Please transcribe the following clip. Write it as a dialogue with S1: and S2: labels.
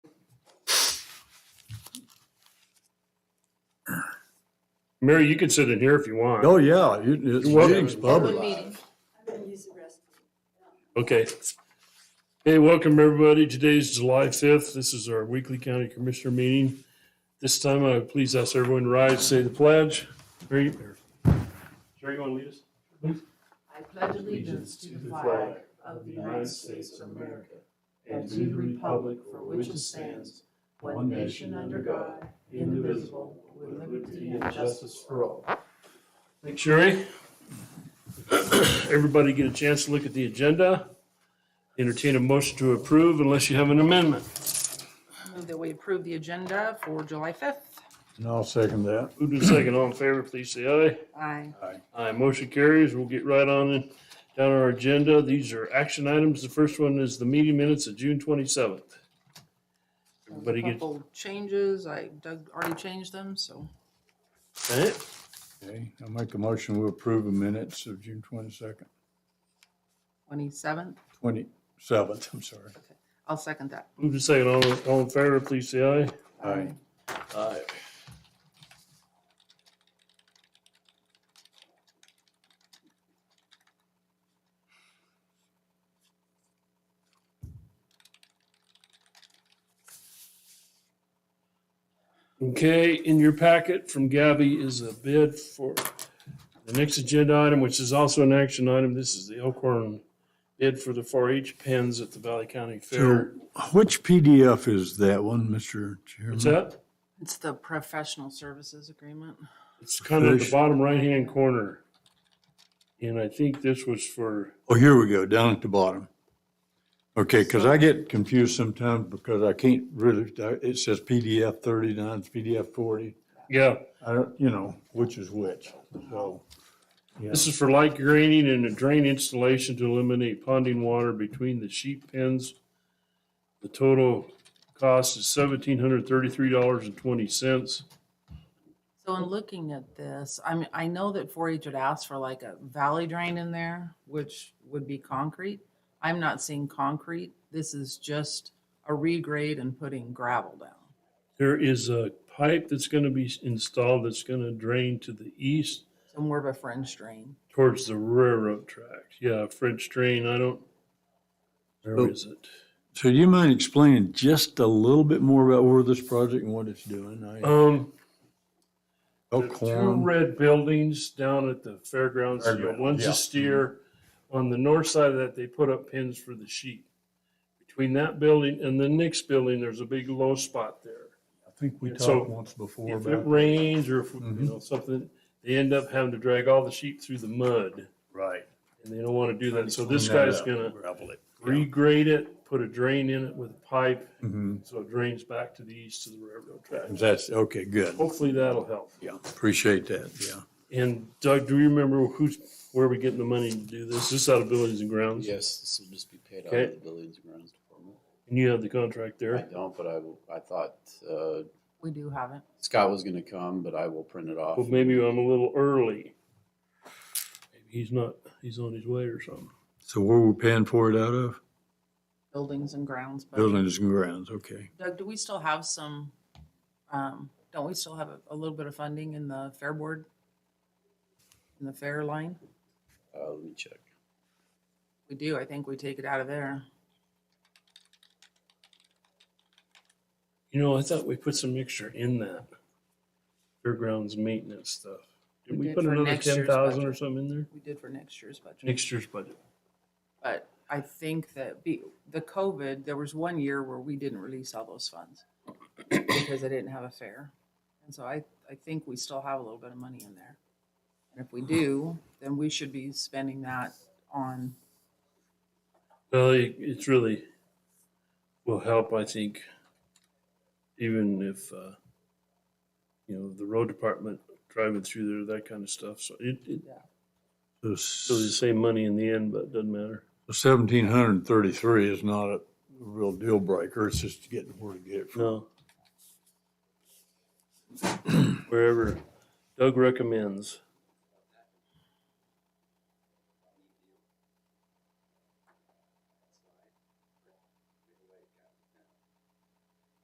S1: Mary, you can sit in here if you want.
S2: Oh, yeah, it- it's,
S1: You're welcome.
S2: meeting's
S3: One
S2: public.
S3: meeting.
S4: I'm gonna use the restroom.
S1: Okay. Hey, welcome everybody. Today's July 5th. This is our weekly county commissioner meeting. This time I would please ask everyone to rise, say the pledge. Mary, or- Sherry, you want to lead us?
S3: I pledge allegiance to the flag of the United States of America and to the republic for which it stands, one nation under God, indivisible, with liberty and justice for all.
S1: Thanks, Sherry. Everybody get a chance to look at the agenda. Entertain a motion to approve unless you have an amendment.
S3: Move that we approve the agenda for July 5th.
S2: And I'll second that.
S1: Moved and second, all in favor, please say aye.
S3: Aye.
S1: Aye, motion carries. We'll get right on in, down our agenda. These are action items. The first one is the meeting minutes of June twenty-seventh. Everybody get
S3: Couple changes, I, Doug already changed them, so
S1: it?
S2: Okay, I'll make a motion, we approve the minutes of June twenty-second,
S3: 27th,
S2: twenty-seventh, I'm sorry.
S3: I'll second that.
S1: Moved and second, all, all in favor, please say aye.
S2: Aye.
S1: Aye. Okay, in your packet from Gabby is a bid for the next agenda item, which is also an action item. This is the Elkhorn bid for the 4-H pens at the Valley County
S2: So
S1: Fair.
S2: which PDF is that one, Mr. Chairman?
S1: What's that?
S3: It's the professional services agreement.
S1: It's kind of the
S2: Fish.
S1: bottom right-hand corner. And I think this was for,
S2: Oh, here we go, down at the bottom. Okay, because I get confused sometimes because I can't really, it says PDF thirty-nine, it's PDF forty.
S1: yeah,
S2: I don't, you know, which is which, so. yeah.
S1: this is for light grading and a drain installation to eliminate ponding water between the sheep pens. The total cost is seventeen hundred thirty-three dollars and twenty cents.
S3: So in looking at this, I mean, I know that 4-H had asked for like a valley drain in there, which would be concrete. I'm not seeing concrete. This is just a regrade and putting gravel down.
S1: There is a pipe that's gonna be installed that's gonna drain to the east
S3: So more of a fringe drain.
S1: towards the railroad tracks. Yeah, French drain, I don't, where is it?
S2: So you mind explaining just a little bit more about where this project and what it's doing? I-
S1: Um,
S2: Oh,
S1: The two
S2: Elkhorn,
S1: red buildings down at the fairgrounds, you know,
S2: Fairground,
S1: one's
S2: yeah.
S1: a steer. On the north side of that, they put up pins for the sheep. Between that building and the next building, there's a big low spot there.
S2: I think we
S1: so
S2: talked once before
S1: If it
S2: about.
S1: rains or if, you
S2: Mhm.
S1: know, something, they end up having to drag all the sheep through the mud
S2: Right.
S1: and they don't want to do that. So this
S2: Clean that
S1: guy's
S2: up,
S1: gonna
S2: Gravel it.
S1: regrade it, put a drain in it with a pipe.
S2: Mhm.
S1: So it drains back to the east to the railroad tracks.
S2: That's, okay, good.
S1: Hopefully that'll help.
S2: Yeah, appreciate that, yeah.
S1: And Doug, do you remember who's, where we getting the money to do this? This is out of buildings and grounds?
S5: Yes, this will just be paid out
S1: Okay.
S5: of the buildings and grounds department.
S1: And you have the contract
S5: I
S1: there?
S5: don't, but I will, I thought, uh,
S3: We do have it.
S5: Scott was gonna come, but I will print it off.
S1: Well, maybe I'm a little early. Maybe he's not, he's on his way or something.
S2: So where we paying for it out of?
S3: Buildings and grounds. but-
S2: Buildings and grounds, okay.
S3: Doug, do we still have some, um, don't we still have a, a little bit of funding in the fair board? In the fair line?
S5: Uh, let me check.
S3: We do. I think we take it out of there.
S1: You know, I thought we put some extra in that fairgrounds maintenance stuff. Did
S3: We
S1: we
S3: did
S1: put
S3: for
S1: another
S3: next year's
S1: ten thousand
S3: budget.
S1: or something in there?
S3: We did for next year's budget.
S1: Next year's budget.
S3: But I think that be, the COVID, there was one year where we didn't release all those funds because I didn't have a fair. And so I, I think we still have a little bit of money in there. And if we do, then we should be spending that on,
S1: Well, it- it's really, will help, I think, even if, uh, you know, the road department driving through there, that kind of stuff. So it, it,
S2: So
S1: still the same money in the end, but it doesn't matter.
S2: seventeen hundred and thirty-three is not a real deal breaker, it's just getting where to get it from.
S1: No. Wherever Doug recommends.